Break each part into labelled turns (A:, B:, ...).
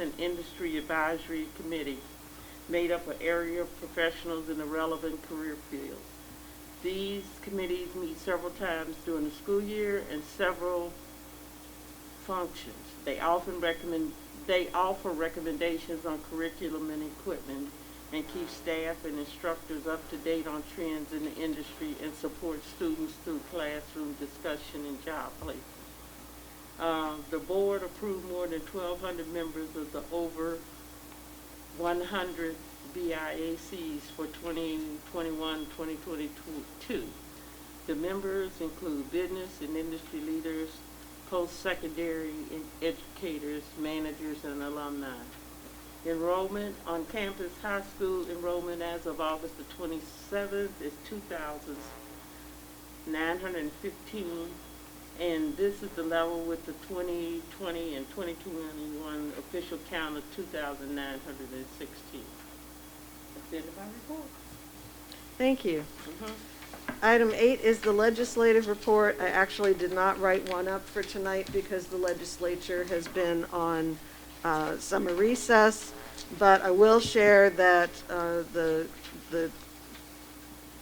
A: and Industry Advisory Committee, made up of area professionals in the relevant career field. These committees meet several times during the school year and several functions. They often recommend, they offer recommendations on curriculum and equipment and keep staff and instructors up to date on trends in the industry and support students through classroom discussion and job placement. Uh, The board approved more than 1,200 members of the over 100 BIACs for 2021, 2022. The members include business and industry leaders, post-secondary en- educators, managers, and alumni. Enrollment on campus high school enrollment as of August the 27th is 2,915, and this is the level with the 2020 and 2021 official count of 2,916. That's the end of my report.
B: Thank you.
A: Mhm.
B: Item eight is the legislative report. I actually did not write one up for tonight because the legislature has been on uh, summer recess, but I will share that uh, the, the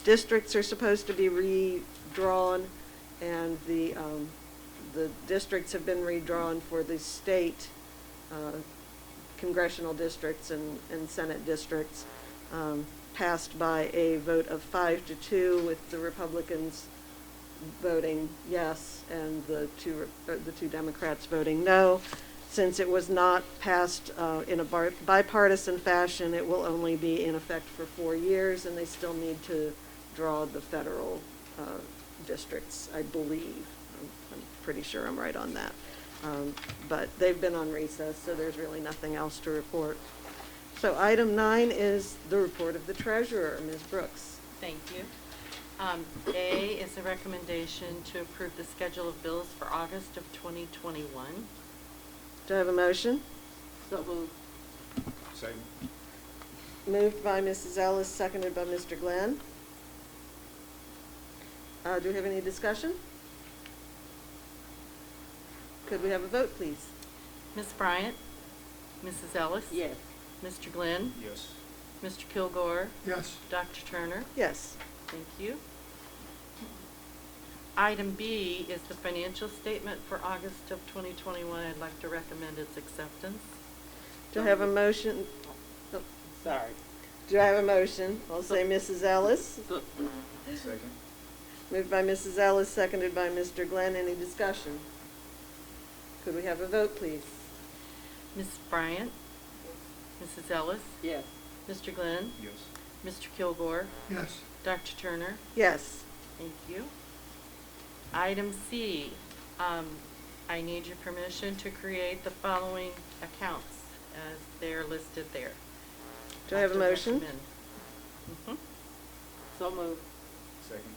B: districts are supposed to be redrawn, and the, um, the districts have been redrawn for the state uh, congressional districts and, and senate districts, um, passed by a vote of five to two, with the Republicans voting yes and the two, Re- uh, the two Democrats voting no. Since it was not passed uh, in a bar- bipartisan fashion, it will only be in effect for four years, and they still need to draw the federal uh, districts, I believe. I'm- I'm pretty sure I'm right on that. Um, But they've been on recess, so there's really nothing else to report. So item nine is the report of the treasurer, Ms. Brooks.
C: Thank you. Um, A is a recommendation to approve the schedule of bills for August of 2021.
B: Do I have a motion?
A: So moved.
D: Second.
B: Moved by Mrs. Ellis, seconded by Mr. Glenn. Uh, Do we have any discussion? Could we have a vote, please?
C: Ms. Bryant? Mrs. Ellis?
A: Yes.
C: Mr. Glenn?
D: Yes.
C: Mr. Kilgore?
D: Yes.
C: Dr. Turner?
B: Yes.
C: Thank you. Item B is the financial statement for August of 2021. I'd like to recommend its acceptance.
B: Do I have a motion? oh,
A: Sorry.
B: Do I have a motion? I'll say Mrs. Ellis.
A: So-
D: Second.
B: Moved by Mrs. Ellis, seconded by Mr. Glenn. Any discussion? Could we have a vote, please?
C: Ms. Bryant? Mrs. Ellis?
A: Yes.
C: Mr. Glenn?
D: Yes.
C: Mr. Kilgore?
D: Yes.
C: Dr. Turner?
B: Yes.
C: Thank you. Item C, um, I need your permission to create the following accounts as they're listed there.
B: Do I have a
C: To
B: motion?
C: recommend. Mhm.
A: So moved.
D: Second.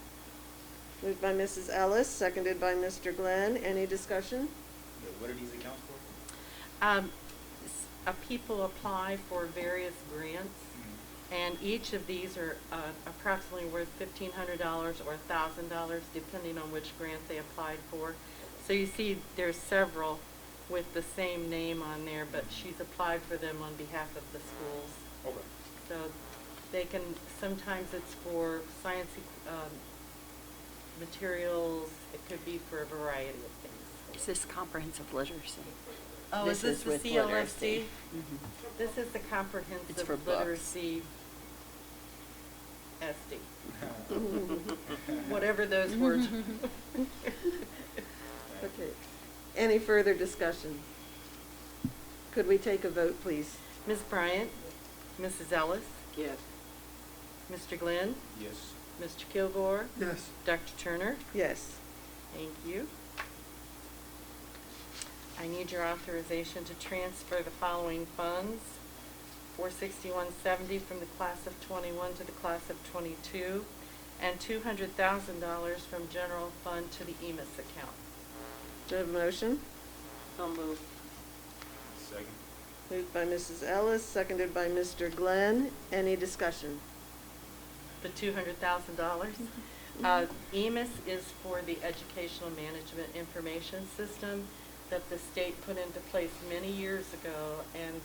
B: Moved by Mrs. Ellis, seconded by Mr. Glenn. Any discussion?
D: Yeah, what are these accounts for?
C: Um, s- uh, people apply for various grants, and each of these are, uh, approximately worth fifteen hundred dollars or thousand dollars, depending on which grant they applied for. So you see, there's several with the same name on there, but she's applied for them on behalf of the schools.
D: Okay.
C: So they can, sometimes it's for science, um, materials, it could be for a variety of things.
E: Is this comprehensive literacy?
C: Oh, is this the
E: with
C: CLFC?
E: literacy. Mhm.
C: This is the
E: It's for
C: comprehensive
E: books.
C: literacy SD, whatever those words.
B: Okay. Any further discussion? Could we take a vote, please?
C: Ms. Bryant, Mrs. Ellis,
A: Yes.
C: Mr. Glenn,
D: Yes.
C: Mr. Kilgore,
D: Yes.
C: Dr. Turner,
B: Yes.
C: thank you. I need your authorization to transfer the following funds. Four sixty-one seventy from the class of twenty-one to the class of twenty-two, and two hundred thousand dollars from general fund to the E EMIS account.
B: Do I have a motion?
A: So moved.
D: Second.
B: Moved by Mrs. Ellis, seconded by Mr. Glenn. Any discussion?
C: The two hundred thousand dollars. Uh, EMIS is for the Educational Management Information System that the state put into place many years ago, and